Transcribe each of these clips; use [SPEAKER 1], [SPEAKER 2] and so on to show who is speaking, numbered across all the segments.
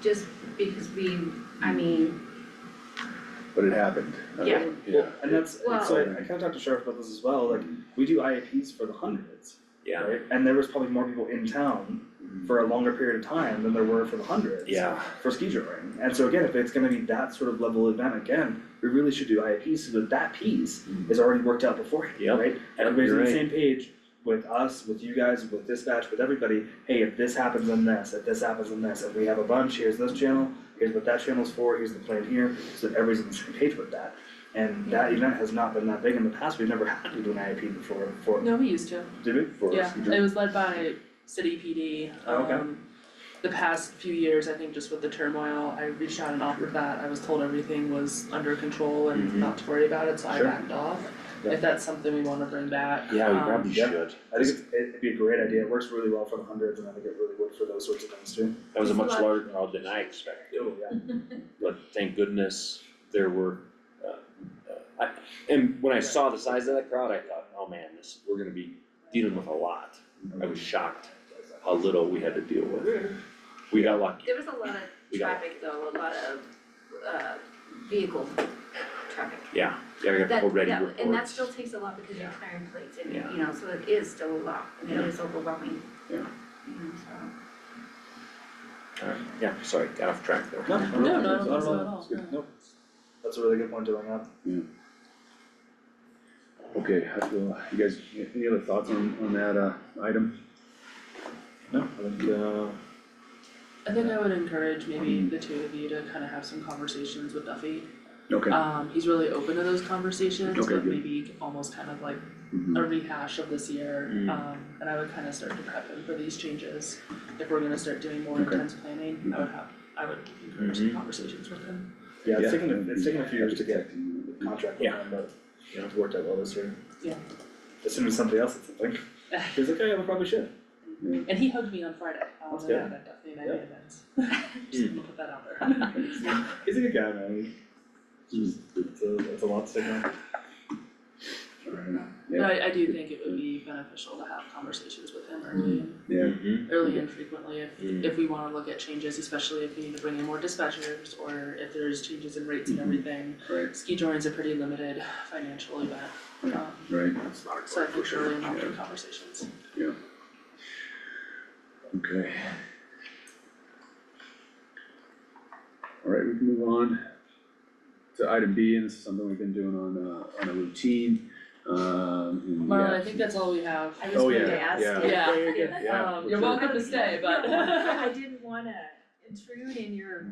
[SPEAKER 1] just because we, I mean,
[SPEAKER 2] but it happened. I
[SPEAKER 1] Yeah.
[SPEAKER 2] mean, Yeah.
[SPEAKER 3] And that's, it's
[SPEAKER 1] Well-
[SPEAKER 3] like, I kind of talked to Sheriff about this as well, like, we do IAPs for the hundreds,
[SPEAKER 4] Yeah.
[SPEAKER 3] right? And there was probably more people in town for a longer period of time than there were for the hundreds.
[SPEAKER 4] Yeah,
[SPEAKER 3] For ski touring, and so again, if it's gonna be that sort of level event again, we really should do IAPs so that that piece is already worked out beforehand,
[SPEAKER 4] Yep.
[SPEAKER 3] right?
[SPEAKER 4] Yep,
[SPEAKER 3] Everybody's
[SPEAKER 4] you're
[SPEAKER 3] on the
[SPEAKER 4] right.
[SPEAKER 3] same page with us, with you guys, with dispatch, with everybody, hey, if this happens then this, if this happens then this, if we have a bunch, here's this channel, here's what that channel's for, here's the plan here, so that everybody's on the same page with that. And that event has not been that big in the past, we've never had to do an IAP before, for,
[SPEAKER 5] No, we used to,
[SPEAKER 3] did we?
[SPEAKER 2] For
[SPEAKER 5] yeah,
[SPEAKER 2] us.
[SPEAKER 5] it was led by city PD,
[SPEAKER 3] Oh, okay.
[SPEAKER 5] um, the past few years, I think just with the turmoil, I reached out and offered that, I was told everything was under control and
[SPEAKER 4] Mhm.
[SPEAKER 5] not to worry about it, so I
[SPEAKER 3] Mm-hmm. Sure.
[SPEAKER 5] backed off.
[SPEAKER 3] Yeah.
[SPEAKER 5] If that's something we wanna bring back,
[SPEAKER 4] yeah, we
[SPEAKER 5] um,
[SPEAKER 4] probably
[SPEAKER 3] yeah.
[SPEAKER 4] should.
[SPEAKER 3] I think it's, it'd be a great idea, it works really well for the hundreds, and I think it really would for those sorts of things too.
[SPEAKER 4] That was a
[SPEAKER 1] It's a
[SPEAKER 4] much
[SPEAKER 1] lot.
[SPEAKER 4] larger crowd than I expected,
[SPEAKER 3] Oh, yeah.
[SPEAKER 4] but thank goodness there were, uh, uh, I, and when I saw the size of that crowd, I thought, oh man, this, we're gonna be dealing with a lot. I was shocked how little we had to deal with. We got lucky.
[SPEAKER 1] there was a lot
[SPEAKER 4] We
[SPEAKER 1] of
[SPEAKER 4] got
[SPEAKER 1] traffic though, a lot of uh vehicle traffic.
[SPEAKER 4] Yeah, yeah, we got
[SPEAKER 1] That-
[SPEAKER 4] people ready
[SPEAKER 1] that-
[SPEAKER 4] reports.
[SPEAKER 1] And that still takes a lot because you're
[SPEAKER 4] Yeah.
[SPEAKER 1] clearing plates and,
[SPEAKER 4] Yeah.
[SPEAKER 1] you know, so it is still a lot, and it
[SPEAKER 4] Yeah.
[SPEAKER 1] is overwhelming.
[SPEAKER 4] Yeah.
[SPEAKER 1] You know, so.
[SPEAKER 4] Alright, Um, yeah, sorry, got off track there.
[SPEAKER 3] No,
[SPEAKER 5] no, no, I don't
[SPEAKER 3] not
[SPEAKER 5] think
[SPEAKER 3] at
[SPEAKER 5] so at
[SPEAKER 3] all.
[SPEAKER 5] all,
[SPEAKER 2] good.
[SPEAKER 5] no.
[SPEAKER 3] That's a really good point to bring up.
[SPEAKER 2] Okay, I feel, you guys, any other thoughts on, on that, uh, item?
[SPEAKER 3] No, I think, uh,
[SPEAKER 5] I think I would encourage maybe the two of you to kind of have some conversations with Duffy.
[SPEAKER 2] Okay.
[SPEAKER 5] Um, he's really open to those conversations,
[SPEAKER 2] Okay,
[SPEAKER 5] but
[SPEAKER 2] good.
[SPEAKER 5] maybe almost kind of like
[SPEAKER 2] Mhm.
[SPEAKER 5] a rehash of this year.
[SPEAKER 4] Mm.
[SPEAKER 5] Um, and I would kind of start to prep him for these changes. If we're gonna start doing more
[SPEAKER 2] Okay.
[SPEAKER 5] intense planning, I would have, I would encourage some conversations with him.
[SPEAKER 3] yeah, it's
[SPEAKER 2] Yeah.
[SPEAKER 3] taken, a- it's taken a few years to get
[SPEAKER 2] Protecting
[SPEAKER 3] a
[SPEAKER 2] you.
[SPEAKER 3] contract with
[SPEAKER 4] Yeah.
[SPEAKER 3] them, but you know, it's worked out well this year.
[SPEAKER 5] Yeah.
[SPEAKER 3] As soon as somebody else said something, he was like, oh yeah, we probably should.
[SPEAKER 5] And he hugged me on Friday, um,
[SPEAKER 3] That's
[SPEAKER 5] at
[SPEAKER 3] good.
[SPEAKER 5] that Duffy and I
[SPEAKER 3] Yeah.
[SPEAKER 5] did that. Just gonna put that out there.
[SPEAKER 3] He's a good guy, man. He's just, it's a, it's a lot to take on.
[SPEAKER 2] Fair enough.
[SPEAKER 5] But
[SPEAKER 2] Yeah,
[SPEAKER 5] I, I do think it would be beneficial to have conversations with him early, and-
[SPEAKER 2] yeah,
[SPEAKER 4] Mhm.
[SPEAKER 5] early
[SPEAKER 2] Mm-hmm.
[SPEAKER 5] and frequently if,
[SPEAKER 4] Mm.
[SPEAKER 5] if we wanna look at changes, especially if we need to bring in more dispatchers or if there's changes in rates and
[SPEAKER 2] Mhm.
[SPEAKER 5] everything.
[SPEAKER 2] right,
[SPEAKER 5] Ski touring's a pretty limited financial event, um,
[SPEAKER 2] right,
[SPEAKER 5] so I think early and
[SPEAKER 2] Yeah.
[SPEAKER 5] often conversations.
[SPEAKER 2] okay. Alright, we can move on to item B, and this is something we've been doing on a, on a routine, um, in the
[SPEAKER 5] Marlon, I think
[SPEAKER 2] absence-
[SPEAKER 5] that's all we have.
[SPEAKER 1] I
[SPEAKER 2] Oh,
[SPEAKER 1] just wanted
[SPEAKER 2] yeah,
[SPEAKER 1] to ask
[SPEAKER 2] yeah.
[SPEAKER 1] if.
[SPEAKER 5] Yeah.
[SPEAKER 2] you're good. Yeah,
[SPEAKER 5] Um,
[SPEAKER 2] for
[SPEAKER 5] you're
[SPEAKER 2] sure.
[SPEAKER 5] welcome to stay, but.
[SPEAKER 1] I didn't wanna intrude in your,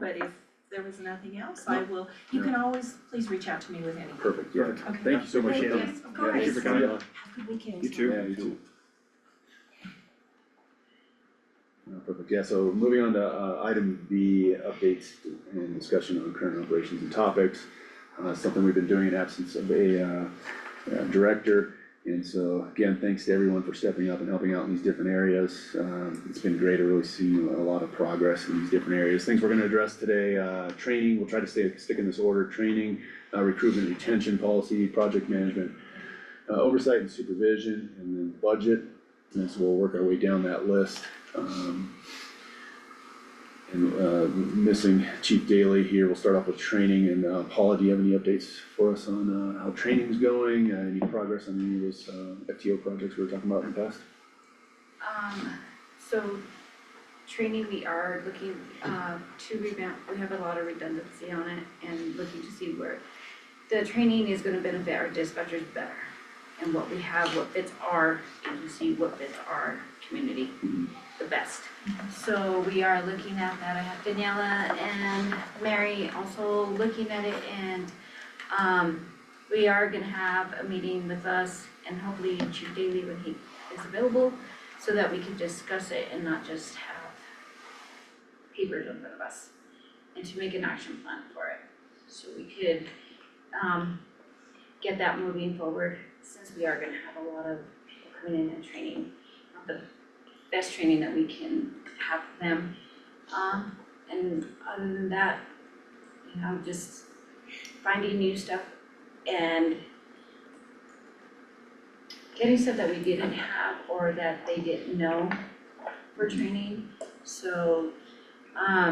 [SPEAKER 1] but if there was nothing else, I will, you can always, please reach out to me with anything.
[SPEAKER 2] Perfect, yeah,
[SPEAKER 1] Okay.
[SPEAKER 2] thank you so much, Shannon.
[SPEAKER 1] Yes, of
[SPEAKER 2] Yeah,
[SPEAKER 1] course.
[SPEAKER 2] thank you for coming on.
[SPEAKER 1] Have a good weekend.
[SPEAKER 3] You too.
[SPEAKER 2] Yeah, you too. No, perfect, yeah, so moving on to uh item B, updates and discussion on current operations and topics. Uh something we've been doing in absence of a uh uh, director. And so again, thanks to everyone for stepping up and helping out in these different areas. Um it's been great to really see a lot of progress in these different areas. Things we're gonna address today, uh training, we'll try to stay, stick in this order, training, uh recruitment, retention policy, project management, uh, oversight and supervision, and then budget. And so we'll work our way down that list. Um, And uh, missing Chief Daly here, we'll start off with training and uh, Paula, do you have any updates for us on uh, how training's going? Uh, Any progress on any of those uh, FTO projects we were talking about in the past?
[SPEAKER 1] Um, so training, we are looking uh to revamp, we have a lot of redundancy on it and looking to see where the training is gonna benefit our dispatchers better and what we have, what fits our agency, what fits our community
[SPEAKER 2] Mhm.
[SPEAKER 1] the best. So we are looking at that. I have Daniela and Mary also looking at it and um we are gonna have a meeting with us and hopefully Chief Daly when he is available so that we can discuss it and not just have papers in front of us. And to make an action plan for it, so we could um get that moving forward, since we are gonna have a lot of people coming in and training, not the best training that we can have for them. Um and other than that, you know, just finding new stuff and getting stuff that we didn't have or that they didn't know for training, so um